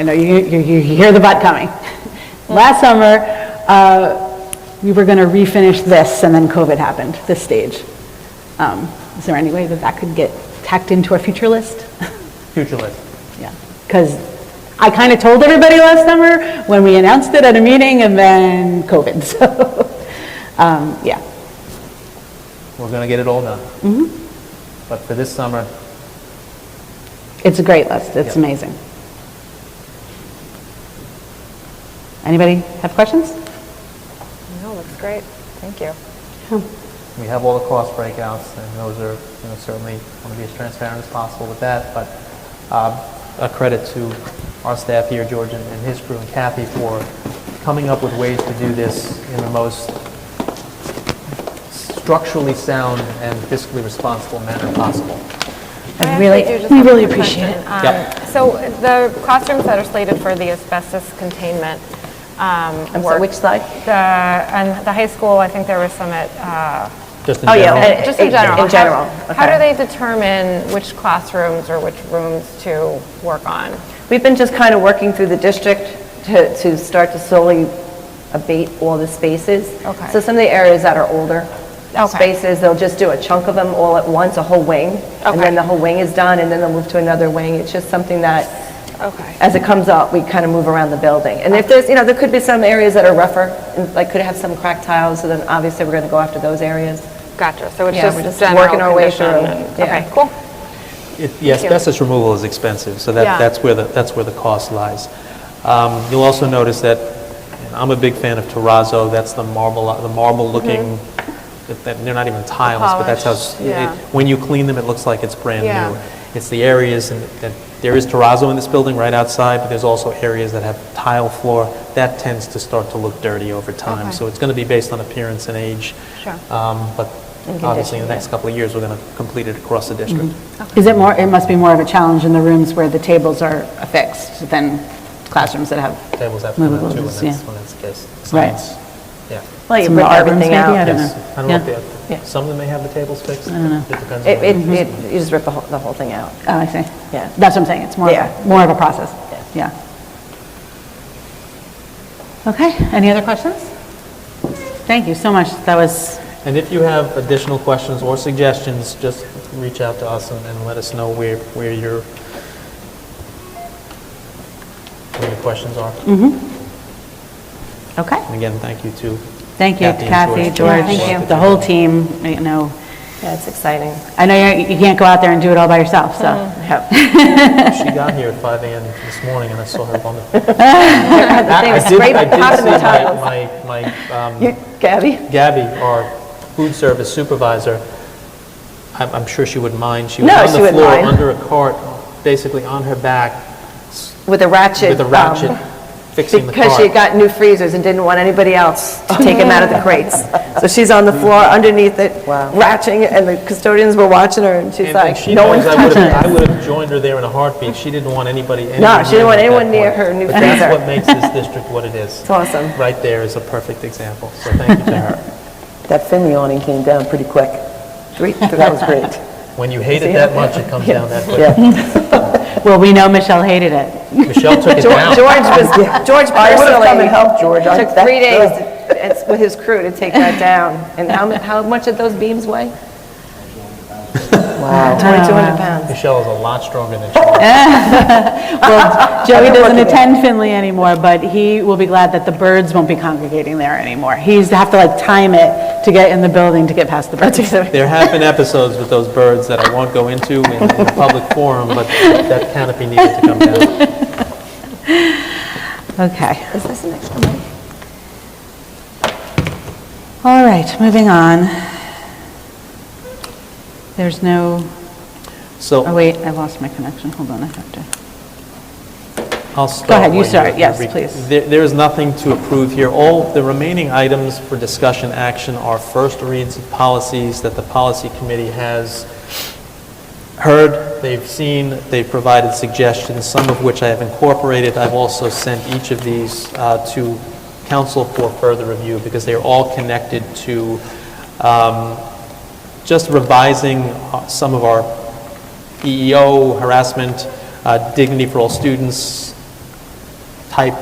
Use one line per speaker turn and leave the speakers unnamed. I know you, you you hear the butt coming. Last summer, uh, we were going to refinish this, and then COVID happened, this stage. Um, Is there any way that that could get tacked into our future list?
Future list.
Yeah, because I kind of told everybody last summer when we announced it at a meeting, and then COVID, so, um, yeah.
We're going to get it all done.
Mm-hmm.
But for this summer,
It's a great list, it's
Yeah.
amazing. Anybody have questions?
No, looks great. Thank you.
we have all the cost breakouts, and those are, you know, certainly want to be as transparent as possible with that, but um, a credit to our staff here, George and and his crew, and Kathy, for coming up with ways to do this in the most structurally sound and fiscally responsible manner possible.
I
actually
really-
do just
we
have
really
one
appreciate
question. Um,
Yep.
So the classrooms that are slated for the asbestos containment um, work,
which slide?
the, and the high school, I think there was some at, uh,
Just in
Oh, yeah.
general,
Uh,
just in
in-
general.
in
how-
general,
How do
okay.
they determine which classrooms or which rooms to work on?
We've been just kind of working through the district to, to start to slowly abate all the spaces.
Okay.
So some of the areas that are older
Okay.
spaces, they'll just do a chunk of them all at once, a whole wing. And
Okay.
then the whole wing is done, and then they'll move to another wing. It's just something that,
Okay.
as it comes up, we kind of move around the building. And if there's, you know, there could be some areas that are rougher, and like could have some cracked tiles, so then obviously we're going to go after those areas.
Gotcha. So it's
Yeah, we're
just
just
general
working our way
condition
through,
and-
yeah.
Okay, cool.
It- Yeah, asbestos removal is expensive, so that,
Yeah.
that's where the, that's where the cost lies. Um, You'll also notice that, and I'm a big fan of terrazzo, that's the marble, the marble-looking, that- that- they're not even tiles, but that's how, s-
Mm-hmm. polished, yeah.
it- when you clean them, it looks like it's brand
Yeah.
new. It's the areas, and that- there is terrazzo in this building right outside, but there's also areas that have tile floor. That tends to start to look dirty over time,
Okay.
so it's going to be based on appearance and age.
Sure.
Um, But obviously, in the next couple of years, we're going to complete it across the district.
Mm-hmm.
Is it more, it must be more of a challenge in the rooms where the tables are affixed than classrooms that have...
tables have to come out too,
Movables,
when that's,
yeah.
when that's the case.
Right.
Science, Yeah.
Well, you
Some of the
bring
art rooms
everything
maybe, I
out.
don't
Yes.
know.
I don't know if
Yeah.
they have, some of them may have the tables fixed. I don't know. It depends
It, it,
on.
it-
Mm-hmm.
you just rip the whole, the whole thing out.
Oh, I see.
Yeah.
That's what I'm saying, it's more, of
Yeah.
a- more of a process. Yeah. Okay, any other questions? Thank you so much, that was,
And if you have additional questions or suggestions, just reach out to us and, and let us know where, where your, where your questions are. And
okay.
again, thank you to.
Thank you,
Kathy
Kathy,
and
George,
Thank you.
the whole team, you know.
Yeah, it's exciting.
I know you you can't go out there and do it all by yourself, so.
She got here at 5 AM this morning and I saw her on the.
They
I
were
did-
scraping
I did
cotton
see my-
tiles.
My, my, um,
You- Gabby?
Gabby, our food service supervisor, I'm, I'm sure she wouldn't mind. She was
No,
on
she
the
wouldn't
floor
mind.
under a cart, basically on her back
With a ratchet.
with a ratchet
um,
fixing the cart.
Because she got new freezers and didn't want anybody else to take them out of the crates. So she's on the floor underneath it, ratcheting, it, and the custodians were watching her, and she's
And- and
like,
she
no
knows I
one's
would've-
touching
I
it.
would have joined her there in a heartbeat. She didn't want anybody.
No, she didn't want
anywhere
anyone near
her at
her new
that point. But that's
freezer.
what makes this district what it is.
It's awesome.
Right there is a perfect example, so thank you to her.
That Finley awning came down pretty quick. That was great.
When you hate it that much, it comes down that quick.
Yeah.
Well, we know Michelle hated it.
Michelle took it
George
down.
George was, George
I would have come and
personally
helped George. I-
took
that-
three days to- it's- with his crew to take that down. And how, mu- how much did those beams weigh? Wow. 2,200 pounds.
Michelle is a lot stronger than she was.
Well, Joey doesn't attend Finley anymore, but he will be glad that the birds won't be congregating there anymore. He's have to like time it to get in the building to get past the birds.
There have been episodes with those birds that I won't go into in in a public forum, but that canopy needed to come down.
Okay. Is this an extra one? All right, moving on. There's no, oh
So
wait, I lost my connection. Hold on, I have to.
I'll start.
ahead, you
where
start. Yes,
re-
please.
There there is nothing to approve here. All the remaining items for discussion action are first reads of policies that the policy committee has heard, they've seen, they've provided suggestions, some of which I have incorporated. I've also sent each of these uh, to council for further review because they are all connected to um, just revising uh, some of E our EEO harassment, uh, dignity for all students, type